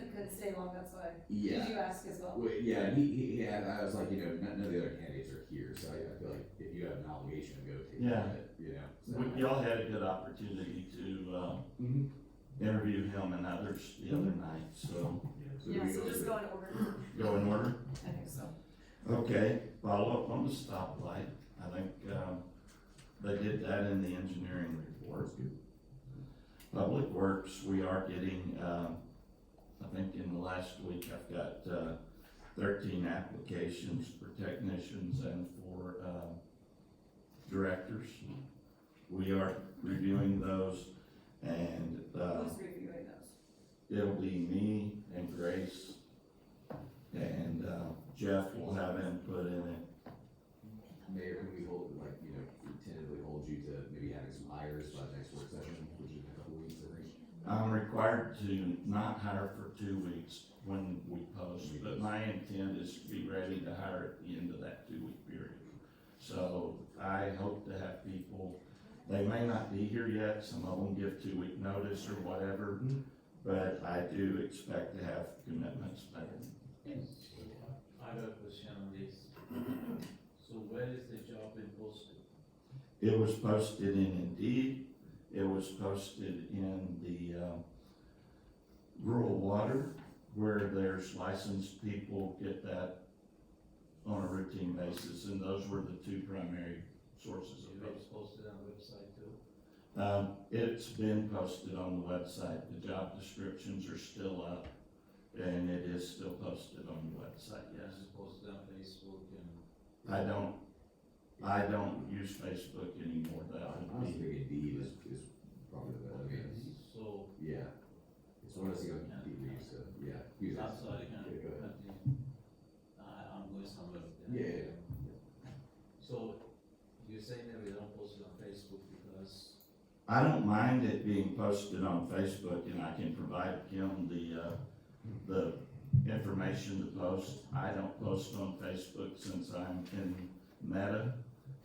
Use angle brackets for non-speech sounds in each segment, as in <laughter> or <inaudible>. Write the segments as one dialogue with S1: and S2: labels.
S1: didn't stay long, that's why. Did
S2: Yeah.
S1: you ask as well?
S2: Well, yeah, he, he, he had, I was like, you know, none, none of the other candidates are here, so I, I feel like if you have an obligation, go take
S3: Yeah.
S2: it, you know? so.
S3: We- Y'all had a good opportunity to, um,
S2: Mhm.
S3: interview him and others the other night, so
S2: So do
S1: Yeah,
S2: we
S1: so
S2: go
S1: just
S2: with-
S1: go in
S4: <clears throat>
S1: order,
S3: go in order.
S1: I think so.
S3: Okay, follow up on the stoplight, I think, um, they did that in the engineering report. Public Works, we are getting, um, I think in the last week, I've got, uh, thirteen applications for technicians and for, um, directors. We are reviewing those and, uh,
S1: Who's reviewing those?
S3: it'll be me and Grace. And, uh, Jeff will have input in it.
S2: Mayor, can we hold, like, you know, tentatively hold you to maybe having some hires by the next work session, which is in a couple weeks, I think?
S3: I'm required to not hire for two weeks when we post, but my intent is to be ready to hire at the end of that two-week period. So I hope to have people, they may not be here yet, some of them give two-week notice or whatever, but I do expect to have commitments made.
S4: I have a question on this. So where is the job been posted?
S3: It was posted in Indeed, it was posted in the, uh, rural water, where there's licensed people get that on a routine basis, and those were the two primary sources
S4: Is
S3: of
S4: it was
S3: those.
S4: posted on website too?
S3: Um, it's been posted on the website, the job descriptions are still up, and it is still posted on the website, yes.
S4: It's posted on Facebook and.
S3: I don't, I don't use Facebook anymore, that
S2: I
S3: would be.
S2: honestly think Indeed is, is probably the, I mean,
S4: So
S2: yeah. It's one of those, things on Indeed we used to, yeah. use it.
S4: I'm sorry, can I
S2: Yeah, go ahead.
S4: continue? I, I'm going somewhere. with that.
S2: Yeah, yeah,
S4: So you're saying that we don't post it on Facebook because,
S3: I don't mind it being posted on Facebook and I can provide him the, uh, the information to post. I don't post on Facebook since I'm in Meta.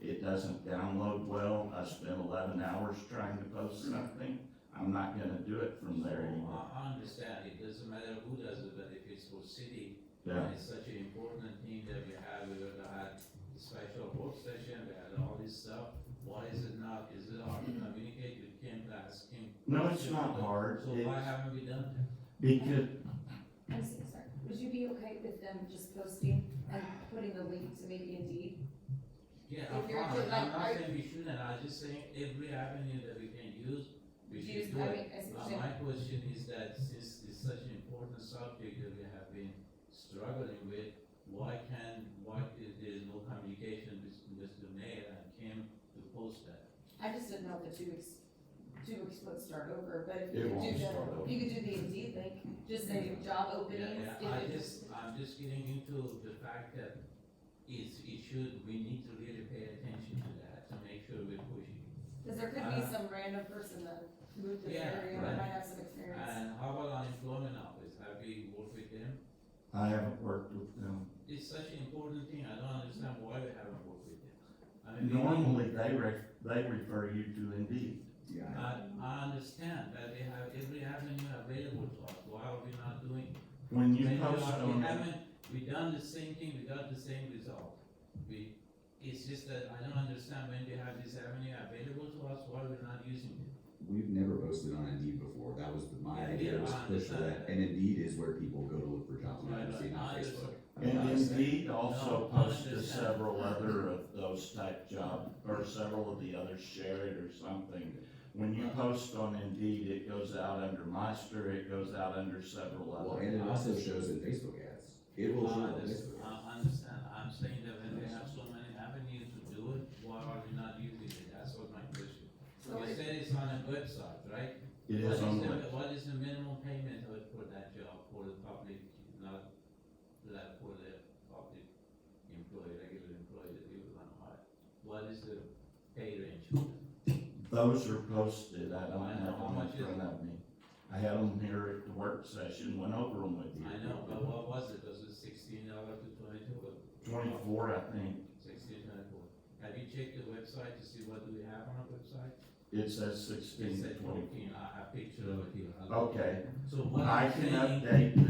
S3: It doesn't download well. I spent eleven hours trying to post something. I'm not gonna do it from there anymore.
S4: I, I understand, it doesn't matter who does it, but if it's for city,
S3: Yeah,
S4: It's such an important thing that we have, we would have had a special work session, we had all this stuff. Why is it not, is it hard to communicate with Kim, to ask him?
S3: no, it's not hard.
S4: So why
S3: It's
S4: haven't we done that?
S3: because,
S1: I'm so sorry, would you be okay with them just posting and putting the link to maybe Indeed?
S4: Yeah,
S1: If
S4: I'm
S1: you're
S4: fine,
S1: to,
S4: I'm
S1: like,
S4: not
S1: are-
S4: saying we shouldn't, I'm just saying every avenue that we can use, we
S1: Use-
S4: should do
S1: I
S4: it.
S1: mean, I see
S4: Uh,
S1: what you're
S4: my question is that since it's such an important subject that we have been struggling with, why can, why is there is no communication between Mr. Mayor and Kim to post that?
S1: saying. I just didn't know the two weeks, two weeks would start over, but if
S3: It
S1: you could
S3: won't
S1: do
S3: start
S1: the,
S3: over.
S1: you could do the Indeed link, just say job
S4: Yeah,
S1: openings.
S4: yeah,
S1: if
S4: I
S1: it-
S4: just, I'm just getting into the fact that it's, it should, we need to really pay attention to that to make sure we're pushing.
S1: Cause there could be
S4: Uh,
S1: some random person that moved to the
S4: yeah,
S1: area
S3: right.
S1: and might have some experience.
S4: And how about unemployment office, have we worked with them?
S3: I haven't worked with them.
S4: It's such an important thing, I don't understand why we haven't worked with them. I mean, we-
S3: Normally, they re, they refer you to Indeed.
S2: yeah. I-
S4: I, I understand that they have every avenue available to us, why are we not doing it?
S3: When you
S4: Maybe
S3: post
S4: not. We
S3: on.
S4: haven't, we done the same thing, we got the same result. We, it's just that I don't understand when we have this avenue available to us, why we're not using it.
S2: We've never posted on Indeed before. That was the- my
S4: Yeah,
S2: idea,
S4: yeah,
S2: was to
S4: I
S2: push for
S4: understand
S2: that. And Indeed is where people go to look for jobs,
S4: Right,
S2: not
S4: right.
S2: see on
S4: I
S2: Facebook. I mean,
S3: And
S2: that's-
S3: Indeed also
S4: No, I
S3: posted
S4: understand.
S3: several other of those type job, or several of the others shared or something. When you post on Indeed, it goes out under Meister, it goes out under several
S2: Well,
S3: other.
S2: and it also shows in Facebook ads. It will show
S4: I
S2: on
S4: understand,
S2: Facebook. ads.
S4: I understand, I'm saying that when we have so many avenues to do it, why are we not using it? That's what my question.
S1: So
S4: You
S1: if-
S4: said it's on a website, right?
S3: It is
S4: What
S3: on,
S4: the-
S3: the-
S4: What is the minimum payment of- for that job, for the public, not, like, for the public employee, regular employee that you want to hire? What is the pay range? for that?
S3: those are posted, I don't have
S4: How
S3: them
S4: much
S3: in
S4: is
S3: front of me. I had them here at the work session, went over them with you.
S4: I know, but what was it, was it sixteen dollar to twenty-two, or
S3: Twenty-four, I think,
S4: sixteen twenty-four? Have you checked the website to see what do we have on our website?
S3: it says
S4: It
S3: sixteen to
S4: said
S3: twenty.
S4: fourteen, I have picture of it here. I'll-
S3: Okay,
S4: So what
S3: Oh, I
S4: I'm
S3: can
S4: saying,
S3: update the